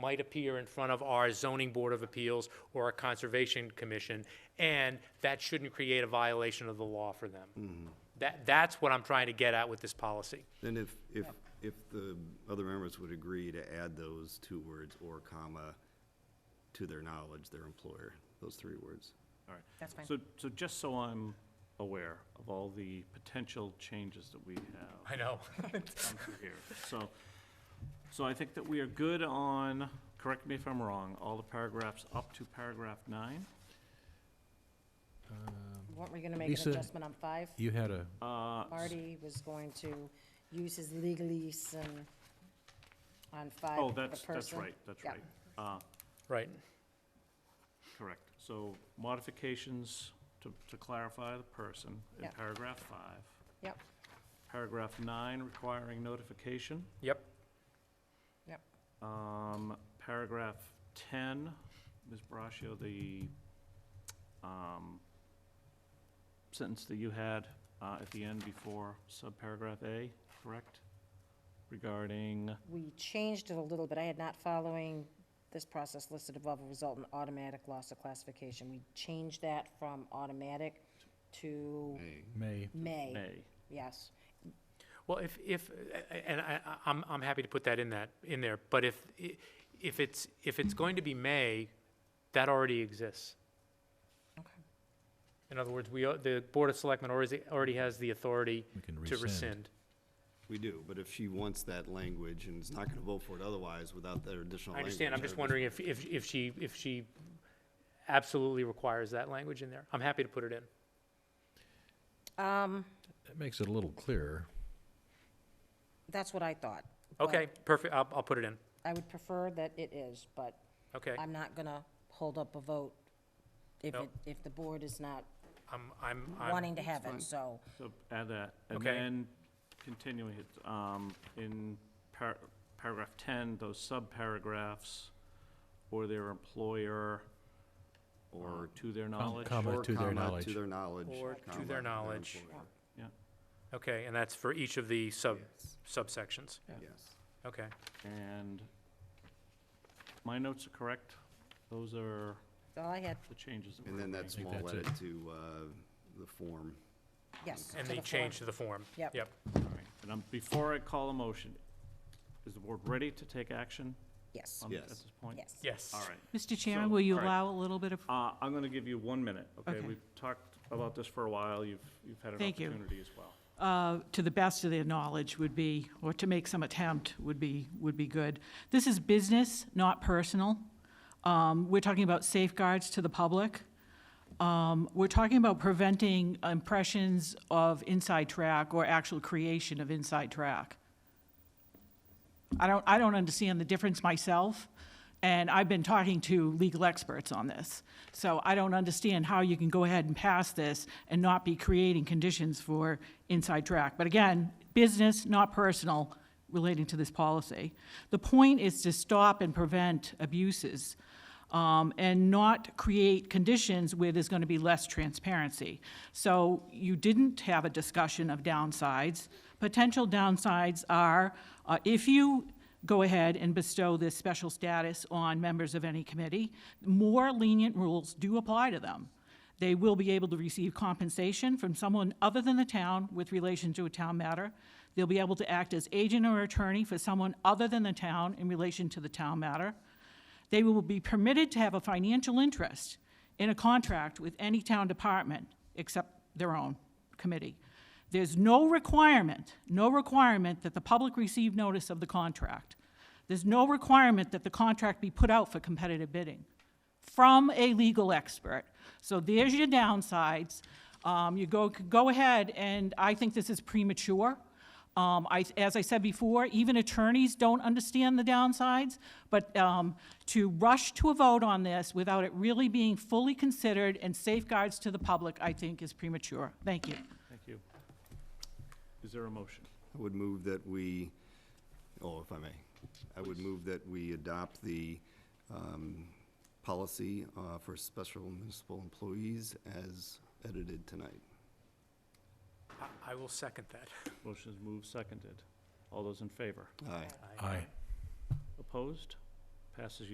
might appear in front of our zoning board of appeals or our conservation commission, and that shouldn't create a violation of the law for them. That, that's what I'm trying to get at with this policy. Then if, if, if the other members would agree to add those two words or comma to their knowledge, their employer, those three words. All right. That's fine. So, so just so I'm aware of all the potential changes that we have I know. come through here. So, so I think that we are good on, correct me if I'm wrong, all the paragraphs up to paragraph nine. Weren't we gonna make Lisa- an adjustment on five? Um, You had a, Uh, Marty was going to use his legalese and on five Oh, for that's, that's person. right, that's Yeah. right. Uh, Right. Correct. So modifications to, to clarify the person in Yep. paragraph five. Yep, Paragraph nine requiring notification. Yep. yep. Um, paragraph ten, Ms. Braccio, the, um, sentence that you had, uh, at the end before subparagraph A, correct? Regarding, We changed it a little bit. I had not following this process listed above will result in automatic loss of classification. We changed that from automatic to May, may, A, yes. Well, if, if, and I, I- I'm, I'm happy to put that in that, in there, but if, if it's, if it's going to be may, that already exists. Okay. In other words, we, are- the Board of Selectmen already, already has the authority we can to rescind. rescind. We do, but if she wants that language and is not gonna vote for it otherwise without that additional I language. understand, I'm just I'd wondering if, if, if she, if she absolutely requires that language in there. I'm happy to put it in. Um, That makes it a little clearer. that's what I thought. but Okay, perfect, I'll, I'll put it in. I would prefer that it is, but Okay, I'm not gonna hold up a vote if No. it, if the board is not I'm, I'm, I'm, wanting to have it, so. so add that. And Okay. then continuing it, um, in par- paragraph ten, those subparagraphs, or their employer, or Or, to their knowledge. comma. or to their Um, comma, knowledge. to their knowledge. Or to comma, their knowledge. employer. okay, and that's for each of the sub, Yes, subsections. Yes. Okay, And my notes are correct. Those are All I had, the changes that were And then that made. think small that's edit it. to, uh, the form. yes. and the to form. change to the form. Yep. Yep, All right. And I'm, before I call a motion, is the board ready to take action Yes, on- at Yes. this point? yes. yes. All right. Mr. So, Chairman, will you all right. allow a little bit of, Uh, I'm going to give you one minute, okay? Okay. We've talked about this for a while. You've, you've had an Thank you. opportunity as well. uh, to the best of their knowledge would be, or to make some attempt would be, would be good. This is business, not personal. Um, We're talking about safeguards to the public. Um, We're talking about preventing impressions of inside track or actual creation of inside track. I don't, I don't understand the difference myself, and I've been talking to legal experts on this. So I don't understand how you can go ahead and pass this and not be creating conditions for inside track. But again, business, not personal, relating to this policy. The point is to stop and prevent abuses um, and not create conditions where there's going to be less transparency. So you didn't have a discussion of downsides. Potential downsides are uh, if you go ahead and bestow this special status on members of any committee, more lenient rules do apply to them. They will be able to receive compensation from someone other than the town with relation to a town matter. They'll be able to act as agent or attorney for someone other than the town in relation to the town matter. They will be permitted to have a financial interest in a contract with any town department except their own committee. There's no requirement, no requirement that the public receive notice of the contract. There's no requirement that the contract be put out for competitive bidding from a legal expert. So there's your downsides. Um, you go, go ahead, and I think this is premature. Um, I, as I said before, even attorneys don't understand the downsides, but, um, to rush to a vote on this without it really being fully considered and safeguards to the public, I think is premature. Thank you. Thank you. Is there a motion? I would move that we, oh, if I may, I would move that we adopt the um, policy uh, for special municipal employees as edited tonight. I- I will second that. Motion is moved, seconded. All those in favor? Aye. I- Aye. Opposed? Passes